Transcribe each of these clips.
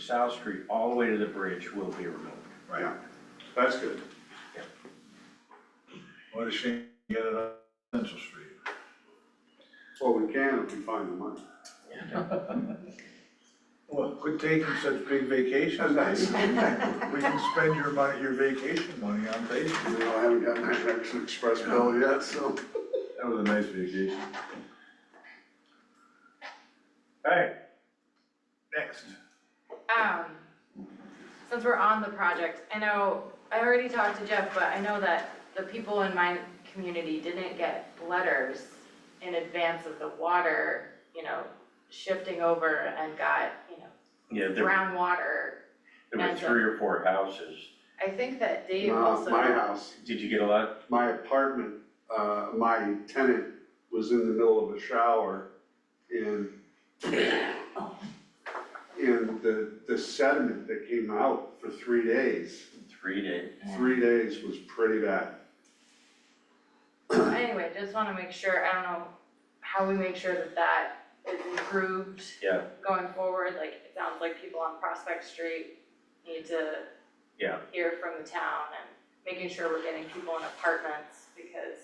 South Street all the way to the bridge will be removed. Right, that's good. Yeah. What a shame to get it on Central Street. Well, we can if we find the money. Well, quit taking such big vacations. We can spend your money, your vacation money on Facebook. You know, I haven't gotten my American Express bill yet, so. That was a nice vacation. Alright, Next. Um, since we're on the project, I know, I already talked to Jeff, but I know that the people in my community didn't get letters in advance of the water, you know, shifting over and got, you know, yeah, there, groundwater. there were three or four houses. I think that Dave Uh, also. My house, Did you get a lot? my apartment, uh, my tenant was in the middle of a shower and and the, the sediment that came out for three days, Three days. three days was pretty bad. Anyway, just wanna make sure, I don't know how we make sure that that is improved. Yeah. Going forward, like, it sounds like people on Prospect Street need to. Yeah. Hear from the town and making sure we're getting people in apartments because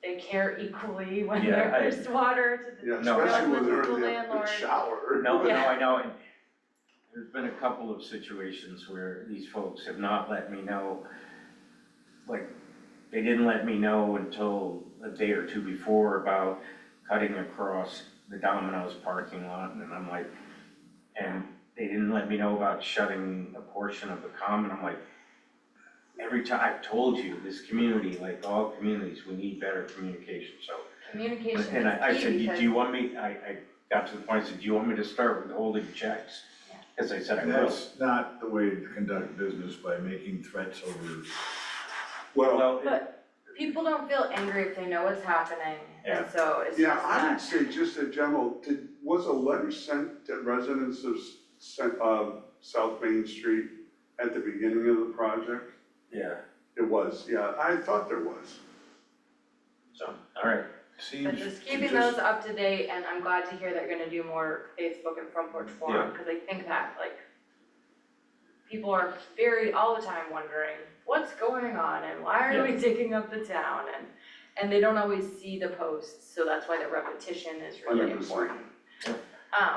they care equally when Yeah, I- there's water to the. Yeah, No, especially when they're Landlord's the in the- the landlord. shower. No, no, Yeah. I know, and there's been a couple of situations where these folks have not let me know. Like, they didn't let me know until a day or two before about cutting across the Domino's parking lot, and I'm like, and they didn't let me know about shutting a portion of the common, I'm like, every time, I've told you, this community, like all communities, we need better communication, so Communication is key and I, I said, because- do you want me, I, I got to the point, I said, do you want me to start withholding checks? Yeah. As I said, I will. That's not the way to conduct business by making threats over. Well, Well, it- People don't feel angry if they know what's happening, and Yeah. so it's yeah, just I would not, say just a general, did, was a letter sent to residents of, s- sent, uh, South Main Street at the beginning of the project? yeah, It was, yeah, I thought there was. so, all right, Seems but to just keeping those up to date, and I'm glad to hear that you're gonna do more Facebook and front porch forum, cause I think that like people are very, all the time wondering, what's going on and why are we digging up the town and and they don't always see the posts, so that's why the repetition is really 100%. important. Yep. Um,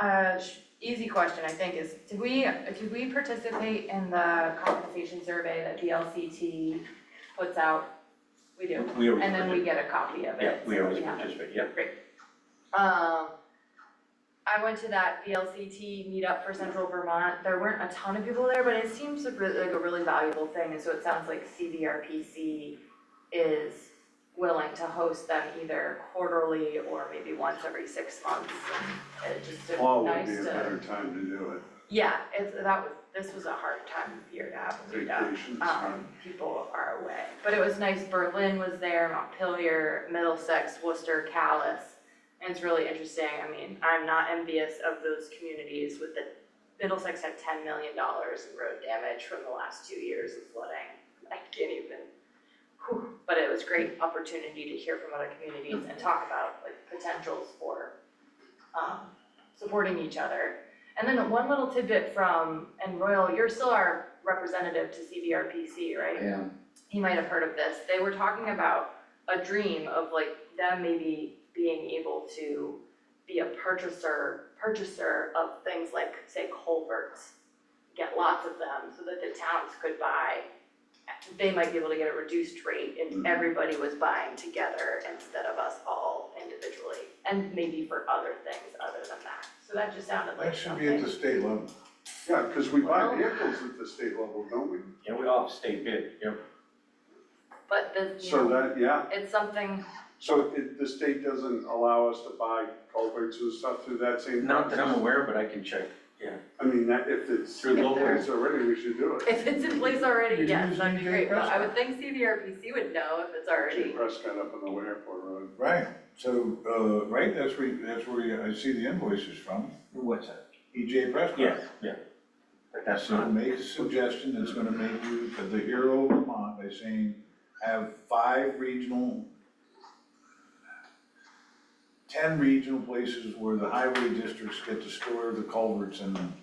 uh, sh- easy question, I think, is did we, did we participate in the compensation survey that BLCT puts out? We do, we always and then participate, we get a copy of it. yeah, we so always have it. participate, yeah, Um, I went to that VLCT meetup for Central Vermont, there weren't a ton of people there, but it seems a really, like a really valuable thing, and so it sounds like CVRPC is willing to host them either quarterly or maybe once every six months, it just a Fall would nice be a to, better time to do it, yeah, it's, that was, this was a hard time of year to have a meetup vacations. um, people are away. But it was nice, Berlin was there, Montpelier, Middlesex, Worcester, Calais. And it's really interesting, I mean, I'm not envious of those communities with the, Middlesex had ten million dollars in road damage from the last two years of flooding. I can't even, whew. but it was great opportunity to hear from other communities and talk about like potentials for um, supporting each other. And then one little tidbit from, and Royal, you're still our representative to CVRPC, right? Yeah, he might have heard of this, they were talking about a dream of like them maybe being able to be a purchaser, purchaser of things like, say, culverts. Get lots of them so that the towns could buy, they might be able to get a reduced rate if Mhm. everybody was buying together instead of us all individually. And maybe for other things other than that, so that just sounded like That should be at the something, state level. Yeah, because we buy Well- vehicles at the state level, don't we? yeah, we all stay bid, yeah. but the, you So know, that, yeah, it's something, so it, the state doesn't allow us to buy culverts and stuff through that same Not process? that I'm aware, but I can check I mean, that, if it's, through If local. there's- it's already, we should do it. If it's in place You already, can yes, use that'd be DJ great, but I Prescott. would think CVRPC would know if it's Actually, already, Prescott up on the way airport road. Right, so, uh, right, that's where, that's where I see the invoices from, E What's that? EJ Prescott. Yeah, yeah, but that's So not, make a suggestion that's gonna make you the hero of Vermont by saying, have five regional, ten regional places where the highway districts get to store the culverts and